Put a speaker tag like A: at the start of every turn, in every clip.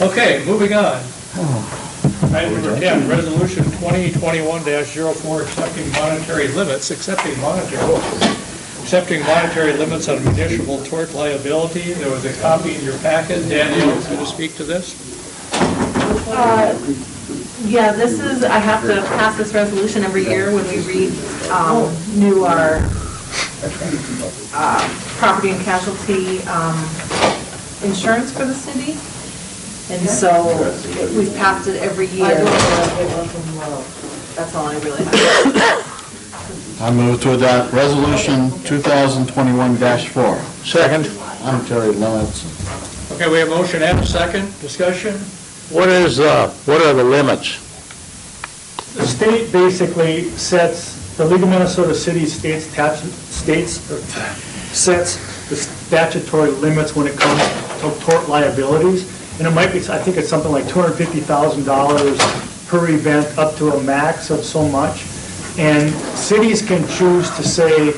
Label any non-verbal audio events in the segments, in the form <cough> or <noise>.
A: Okay, moving on. Item number 10, Resolution 2021-04, accepting monetary limits, accepting monetary, accepting monetary limits on municipal tort liability. There was a copy in your packet. Daniel, going to speak to this?
B: Uh, Yeah, this is, I have to pass this resolution every year when we read, um, new our, uh, property and casualty, um, insurance for the city. And so we've passed it every year. That's all I really have.
C: I move to adopt Resolution 2021-4. Second. Monetary limits.
A: Okay, we have motion and a second, discussion?
C: What is, uh, what are the limits?
D: The state basically sets, the League of Minnesota Cities states, tat- states, or sets the statutory limits when it comes to tort liabilities. And it might be, I think it's something like $250,000 per event, up to a max of so much. And cities can choose to say,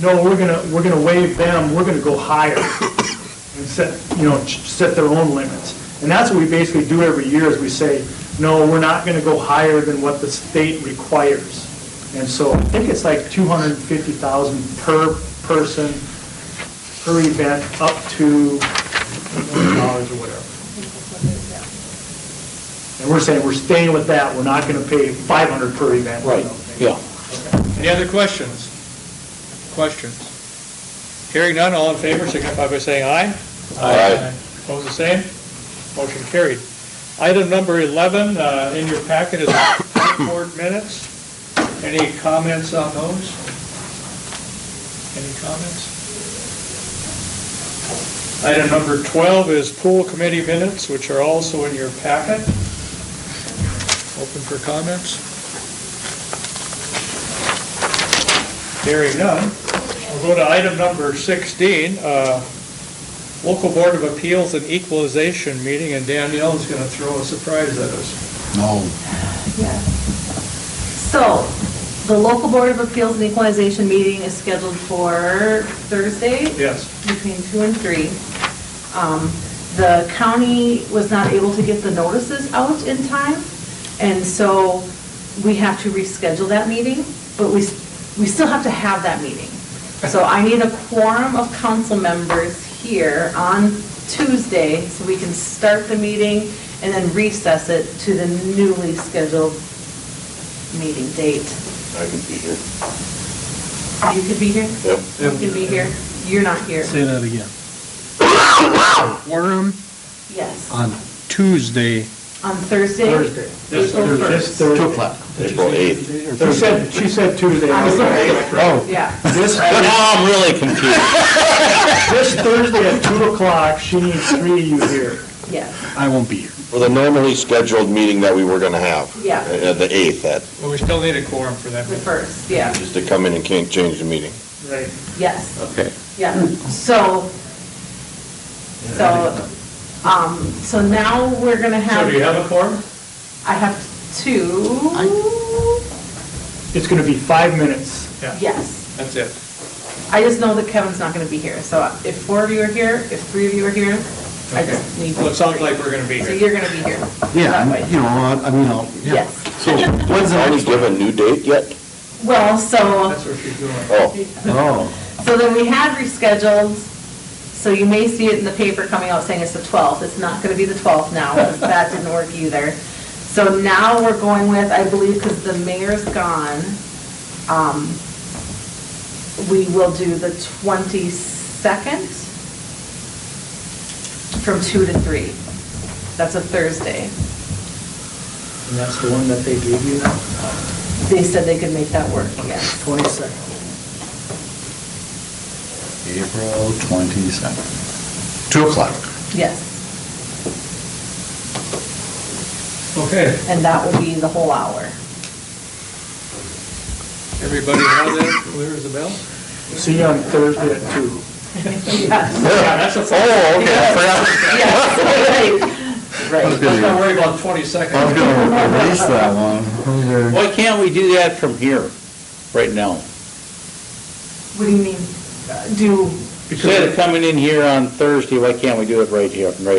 D: no, we're gonna, we're gonna waive them, we're gonna go higher and set, you know, ch- set their own limits. And that's what we basically do every year, is we say, no, we're not going to go higher than what the state requires. And so I think it's like 250,000 per person, per event, up to $1 million dollars or whatever. And we're saying, we're staying with that, we're not going to pay 500 per event. Right,
C: Yeah.
A: Any other questions? Questions? Hearing none, all in favor, signify by saying aye. Aye. Opposed, the same? Motion carried. Item number 11, uh, in your packet is the board minutes. Any comments on those? Any comments? Item number 12 is pool committee minutes, which are also in your packet. Open for comments. Hearing none, we'll go to item number 16, uh, Local Board of Appeals and Equalization Meeting, and Danielle is going to throw a surprise at us.
C: No.
B: So, the local board of appeals and equalization meeting is scheduled for Thursday,
A: Yes.
B: between two and three. Um, The county was not able to get the notices out in time, and so we have to reschedule that meeting, but we, s- we still have to have that meeting. So I need a quorum of council members here on Tuesday, so we can start the meeting and then recess it to the newly scheduled meeting date.
E: I can be here.
B: You could be here?
E: Yep.
B: You could be here. You're not here.
F: Say that again. Quorum
B: Yes,
F: on Tuesday.
B: on Thursday.
D: Thursday.
A: This
B: April
A: Thursday.
D: This
B: first.
D: Thursday.
C: Two o'clock.
E: April 8th.
D: She said, she said Tuesday.
B: I'm sorry.
C: Oh.
B: Yeah,
C: <laughs>
D: This
C: Now I'm really confused. <laughs>
D: This Thursday at 2 o'clock, she needs three of you here.
B: yes,
F: I won't be here.
E: For the normally scheduled meeting that we were going to have.
B: Yeah.
E: uh, The 8th, that,
A: Well, we still need a quorum for that.
B: the first, yeah,
E: just to come in and can't change the meeting.
D: Right.
B: yes,
E: Okay.
B: yeah. So, so, um, so now we're gonna
A: So do you
B: have,
A: have a quorum?
B: I have two,
D: It's going to be five minutes.
B: yes.
A: That's it.
B: I just know that Kevin's not gonna be here, so if four of you are here, if three of you are here, I just need.
A: Well, it sounds like we're going to be
B: So
A: here.
B: you're gonna be here.
C: Yeah,
B: That
C: I'm-
B: way.
C: you know, I I mean, I'll, yeah.
B: Yes.
C: So, when's the
E: Already
C: next?
E: give a new date yet?
B: Well, so,
A: That's what she's doing.
E: Oh,
C: Oh,
B: so then we had rescheduled, so you may see it in the paper coming out saying it's the 12th. It's not going to be the 12th now, because that didn't work either. So now we're going with, I believe, because the mayor's gone, um, we will do the 22nd from 2 to 3. That's a Thursday.
D: And that's the one that they gave you now,
B: They said they could make that work, yes.
D: 22nd.
C: April 27. 2 o'clock.
B: Yes,
A: Okay,
B: and that will be the whole hour.
A: everybody have that clear as a bell?
D: See you on Thursday at 2.
A: Yeah,
B: <laughs>
A: that's a
C: Oh,
A: quorum.
C: <laughs>
B: Yes,
C: I was
A: Let's not
C: gonna
A: worry about
C: I was
A: 22nd.
C: gonna erase that one. Oh, Those are-
G: Why can't we do that from here, right now?
B: What do you mean? Do,
G: Instead of coming in here on Thursday, why can't we do it right here, right